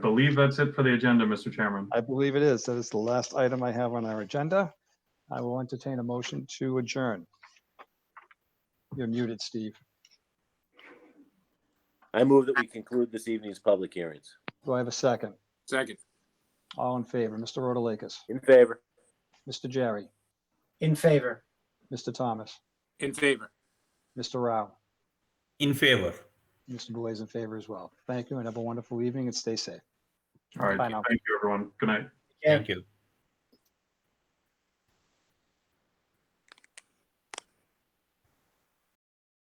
believe that's it for the agenda, Mr. Chairman. I believe it is. That is the last item I have on our agenda. I will entertain a motion to adjourn. You're muted, Steve. I move that we conclude this evening's public hearings. Do I have a second? Second. All in favor, Mr. Rotalakis, In favor? Mr. Jerry, In favor. Mr. Thomas, In favor. Mr. Rao, In favor. Mr. Boy is in favor as well. Thank you and have a wonderful evening and stay safe. All right, Bye now. thank you, everyone. Good night. Yeah. Thank you.